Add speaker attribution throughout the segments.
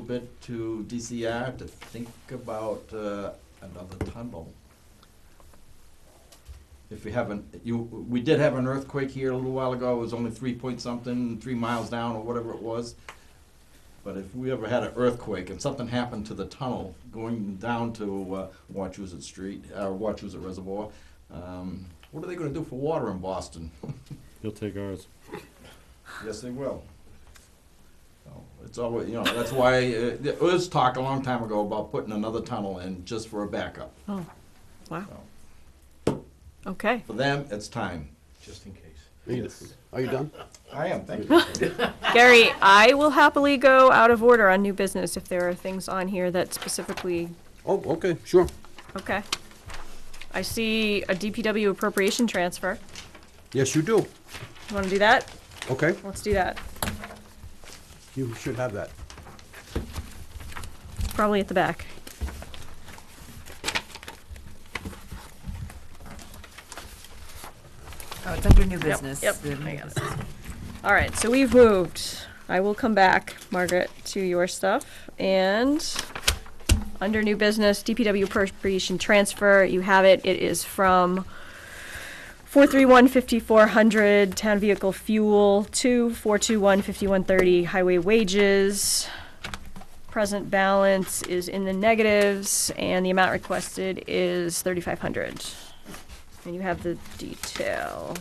Speaker 1: bit to DCR to think about uh, another tunnel. If we haven't, you, we did have an earthquake here a little while ago, it was only three point something, three miles down or whatever it was. But if we ever had an earthquake and something happened to the tunnel going down to uh, Wachusett Street, uh, Wachusett Reservoir, um, what are they gonna do for water in Boston?
Speaker 2: He'll take ours.
Speaker 1: Yes, they will. So, It's always, you know, that's why, uh, there was talk a long time ago about putting another tunnel in just for a backup.
Speaker 3: Oh, wow.
Speaker 1: So,
Speaker 3: Okay.
Speaker 1: For them, it's time.
Speaker 4: just in case.
Speaker 2: Are you, are you done?
Speaker 1: I am, thank you.
Speaker 3: Gary, I will happily go out of order on new business if there are things on here that specifically,
Speaker 2: Oh, okay, sure.
Speaker 3: okay. I see a DPW appropriation transfer.
Speaker 2: Yes, you do.
Speaker 3: You want to do that?
Speaker 2: Okay,
Speaker 3: Let's do that.
Speaker 2: you should have that.
Speaker 3: Probably at the back.
Speaker 5: Oh, it's under new
Speaker 3: Yep,
Speaker 5: business.
Speaker 3: yep,
Speaker 5: the new
Speaker 3: I got it.
Speaker 5: business.
Speaker 3: All right, so we've moved. I will come back, Margaret, to your stuff. And under new business, DPW appropriation transfer, you have it. It is from 431 5400 town vehicle fuel to 421 5130 highway wages. Present balance is in the negatives, and the amount requested is 3500 And you have the detail.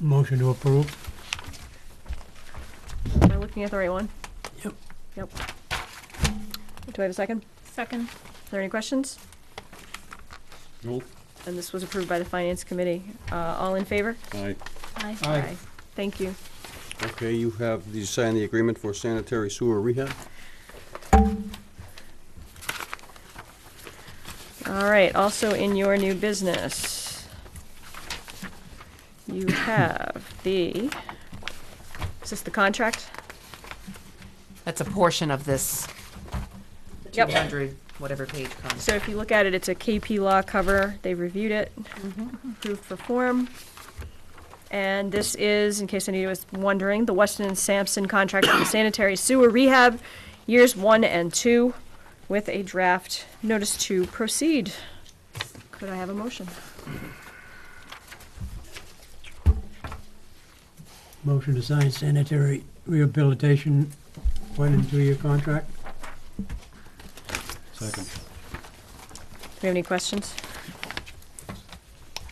Speaker 6: Motion to approve.
Speaker 3: Am I looking at the right one? Yep. Yep. Do I have a second?
Speaker 7: Second.
Speaker 3: Are there any questions?
Speaker 2: Nope.
Speaker 3: And this was approved by the Finance Committee. Uh, all in favor?
Speaker 2: Aye.
Speaker 7: Aye.
Speaker 6: Aye.
Speaker 3: Thank you.
Speaker 2: Okay, you have, you signed the agreement for sanitary sewer rehab?
Speaker 3: All right, also in your new business, you have the, is this the contract?
Speaker 5: That's a portion of this two
Speaker 3: Yep.
Speaker 5: hundred, whatever page comes.
Speaker 3: So if you look at it, it's a KP Law cover. They reviewed it, approved for form. And this is, in case anybody was wondering, the Weston and Sampson contract for the sanitary sewer rehab, years one and two, with a draft notice to proceed. Could I have a motion?
Speaker 6: Motion to sign sanitary rehabilitation one and two-year contract.
Speaker 2: Second.
Speaker 3: Do we have any questions?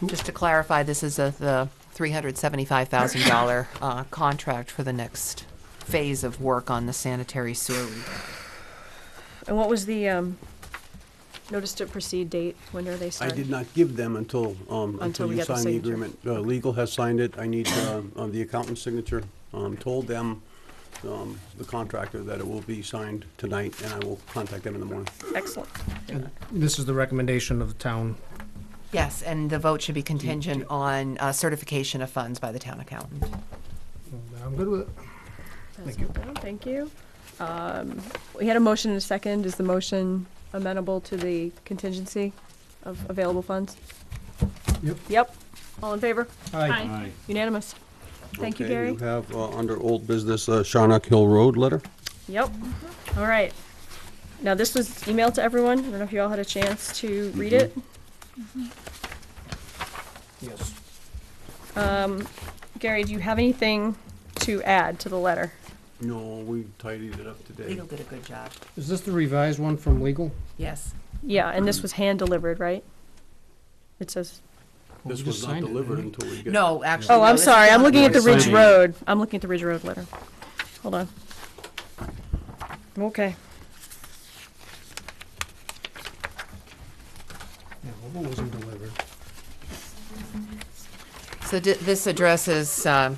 Speaker 5: Just to clarify, this is a, the three hundred seventy-five thousand dollar, uh, contract for the next phase of work on the sanitary sewer. rehab.
Speaker 3: And what was the, um, notice to proceed date? When are they
Speaker 2: I
Speaker 3: starting?
Speaker 2: did not give them until, um,
Speaker 3: Until
Speaker 2: until
Speaker 3: we
Speaker 2: you
Speaker 3: get the
Speaker 2: signed the
Speaker 3: signature.
Speaker 2: agreement. Uh, legal has signed it, I need, uh, uh, the accountant's signature. Um, told them, um, the contractor that it will be signed tonight, and I will contact them in the morning.
Speaker 3: Excellent.
Speaker 8: This is the recommendation of the town.
Speaker 5: Yes, and the vote should be contingent on, uh, certification of funds by the town accountant.
Speaker 8: I'm good with it.
Speaker 3: That's all done. Thank you. Um, We had a motion and a second. Is the motion amenable to the contingency of available funds?
Speaker 6: Yep.
Speaker 3: Yep. All in favor?
Speaker 6: Aye.
Speaker 3: Unanimous. Thank you,
Speaker 2: Okay,
Speaker 3: Gary.
Speaker 2: You have, uh, under old business, uh, Sharnock Hill Road letter?
Speaker 3: Yep. All right. Now, this was emailed to everyone. I don't know if you all had a chance to read it.
Speaker 8: Yes.
Speaker 3: Um, Gary, do you have anything to add to the letter?
Speaker 2: No, we tidied it up today.
Speaker 5: Legal did a good job.
Speaker 8: Is this the revised one from legal?
Speaker 5: Yes.
Speaker 3: Yeah, and
Speaker 2: Mm.
Speaker 3: this was hand-delivered, right? It says,
Speaker 2: This
Speaker 8: We
Speaker 2: was
Speaker 8: just
Speaker 2: not
Speaker 8: signed it,
Speaker 2: delivered
Speaker 8: right?
Speaker 2: until we get.
Speaker 5: No, actually.
Speaker 3: oh,
Speaker 5: no,
Speaker 3: I'm
Speaker 5: this is
Speaker 3: sorry. I'm
Speaker 5: not
Speaker 3: looking at the
Speaker 5: yours.
Speaker 3: Ridge
Speaker 8: Signing.
Speaker 3: Road. I'm looking at the Ridge Road letter. Hold on. Okay.
Speaker 8: Yeah, well, it wasn't delivered.
Speaker 5: So di- this addresses, um,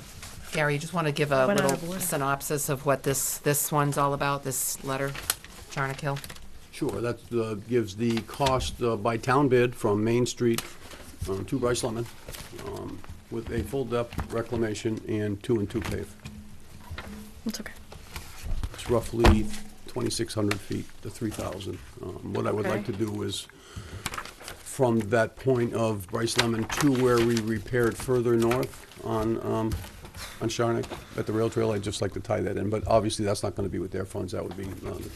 Speaker 5: Gary, you just want to give a
Speaker 3: Went out
Speaker 5: little
Speaker 3: of order.
Speaker 5: synopsis of what this, this one's all about, this letter, Charnock Hill?
Speaker 2: Sure, that uh, gives the cost uh, by town bid from Main Street um, to Bryce Lemon um, with a full-depth reclamation and two and two pave.
Speaker 3: It's okay.
Speaker 2: It's roughly 2,600 feet to 3,000. Um, What I would like
Speaker 3: Okay.
Speaker 2: to do is, from that point of Bryce Lemon to where we repaired further north on, um, on Sharnick at the rail trail, I'd just like to tie that in, but obviously that's not going to be with their funds, that would be uh, the